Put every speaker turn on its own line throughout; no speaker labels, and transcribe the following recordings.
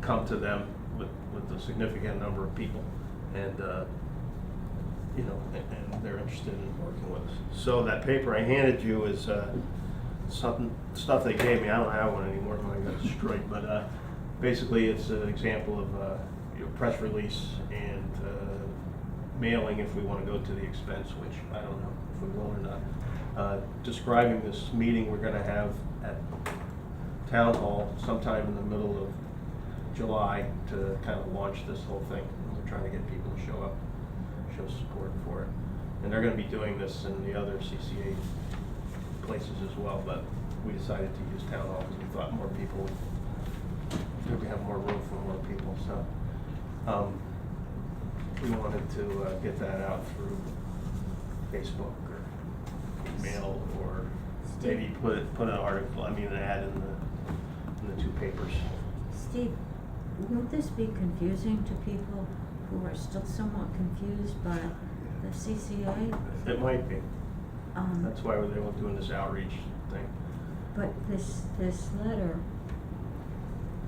come to them with, with a significant number of people. And, uh, you know, and and they're interested in working with us. So that paper I handed you is uh, something, stuff they gave me, I don't have one anymore, I got destroyed, but uh, basically it's an example of, uh, you know, press release and uh, mailing if we want to go to the expense, which I don't know if we will or not. Uh, Describing this meeting we're going to have at Town Hall sometime in the middle of July to kind of launch this whole thing. We're trying to get people to show up, show support for it. And they're gonna be doing this in the other CCA places as well, but we decided to use town hall because we thought more people, we would have more room for more people, so. um, We wanted to uh, get that out through Facebook or email or maybe put, put an article, I mean, an ad in the, in the two papers.
Steve, won't this be confusing to people who are still somewhat confused by the CCA?
It might be.
Mm-hmm.
Um,
That's why they were doing this outreach thing.
But this, this letter,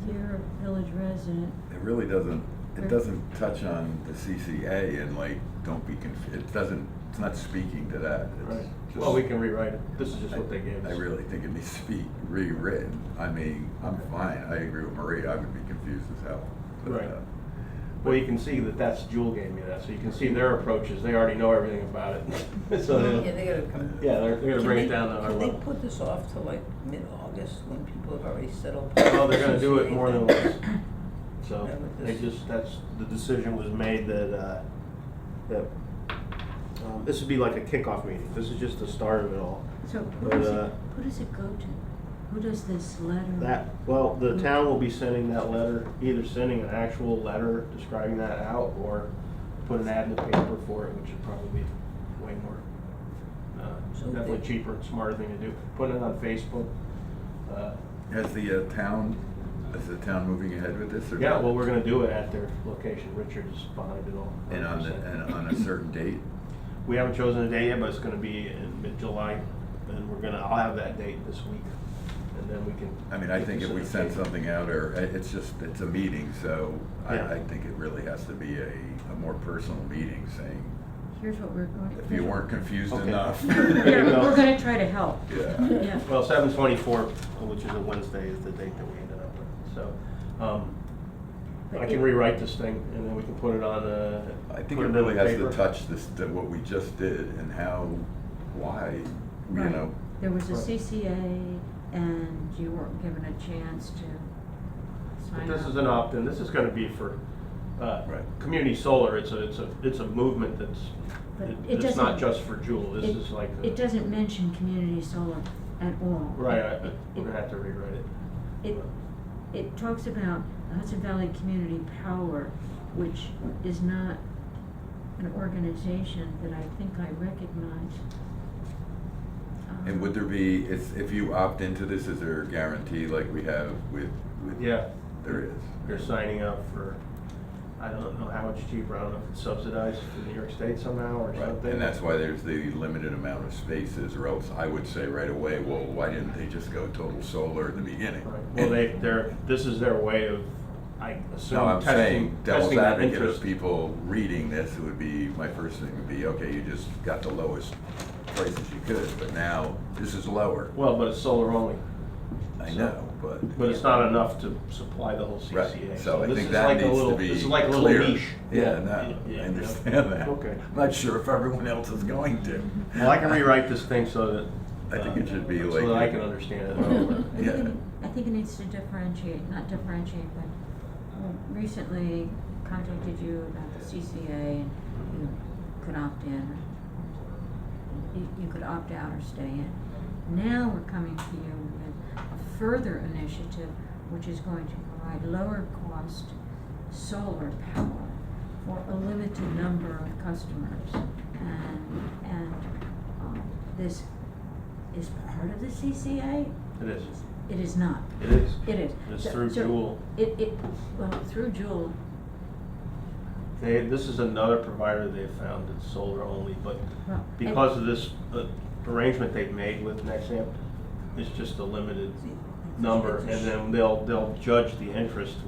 dear village resident,
It really doesn't,
Right.
it doesn't touch on the CCA and like, don't be confused, it doesn't, it's not speaking to that. It's just-
Well, we can rewrite it. This is just what they gave
I
us.
really think it needs to be rewritten. I mean, I'm fine, I agree with Marie, I would be confused as hell. But,
Right.
uh,
Well, you can see that that's, Jewel gave me that, so you can see their approaches. They already know everything about it. So,
Yeah,
they-
they gotta come.
yeah, they're, they're gonna
Can
bring it
they-
down to our
Can they
level.
put this off to like mid-August when people have already settled?
Well, they're gonna do it more than once. So,
Yeah, but
they
this-
just, that's, the decision was made that, uh, that, um, this would be like a kickoff meeting. This is just the start of it all.
so who
But,
does
uh,
it, who does it go to? Who does this letter?
That, well, the town will be sending that letter, either sending an actual letter describing that out or put an ad in the paper for it, which would probably be way more,
So
uh,
they-
definitely cheaper and smarter thing to do. Putting it on Facebook. uh,
Has the uh, town, is the town moving ahead with this or?
Yeah,
not?
well, we're gonna do it at their location. Richard's behind it all.
And on, the- and on a certain date?
We haven't chosen a date yet, but it's gonna be in mid-July and we're gonna, I'll have that date this week. And then we can.
I mean, I
get
think
this
if
in
we
the
send
paper.
something out, or, i- it's just, it's a meeting, so I,
Yeah.
I think it really has to be a, a more personal meeting saying,
Here's what we're going.
if you weren't confused
Okay.
enough.
There
Here,
you go.
we're gonna try to help.
Yeah.
Yeah.
Well, seven twenty-four, which is a Wednesday, is the date that we ended up with, so, um,
But
I can
it-
rewrite this thing, and then we can put it on, uh.
I think
put
it
on
really has to
paper.
touch this, to what we just did and how, why, you
Right.
know,
There was a
Right.
CCA and you weren't given a chance to
But
sign
this
up.
is an opt-in, this is gonna be for, uh,
Right.
community solar, it's a, it's a, it's a movement that's,
But
it-
it
it's not
doesn't-
just for Jewel, this
It-
is like. a-
It doesn't mention community solar at all.
Right, I,
It-
we're gonna have to rewrite it.
It, it talks about the Hudson Valley Community Power, which is not an organization that I think I recognize. Um,
and would there be, if, if you opt into this, is there a guarantee like we have with, with?
Yeah.
There is.
You're signing up for, I don't know how much cheaper, I don't know if it's subsidized for New York State somehow or
Right,
something.
and that's why there's the limited amount of spaces, or else I would say right away, well, why didn't they just go total solar in the beginning?
Right. Well, they, they're, this is their way of, I
No,
assume,
I'm
testing,
saying, devil's
testing that
advocate of
interest.
people reading this would be, my first thing would be, okay, you just got the lowest places you could, but now this is lower.
Well, but it's solar only,
I
So-
know, but.
but it's not enough to supply the whole CCA.
Right, so I
this
think
is
that
like a
needs to
little-
be clear.
This is like a little niche.
Yeah, no,
Yeah,
I
yeah.
understand that.
Okay.
I'm Not sure if everyone else is going to.
Well, I can rewrite this thing so that.
I think it
uh,
should be
So
like-
that I can understand it.
Um, I think it-
Yeah.
I think it needs to differentiate, not differentiate, but um, recently contacted you about the CCA and you could opt in. You, you could opt out or stay in. Now we're coming to you with a further initiative, which is going to provide lower cost solar power for a limited number of customers. And, and, um, this is part of the CCA?
It is,
It is not.
it is.
It is.
It's
So-
through
so
Juul.
It, it, well, through Jewel,
They, this is another provider they've found that's solar only, but
well. and-
because of this uh, arrangement they've made with Nexamp, it's just a limited number, and then they'll, they'll judge the interest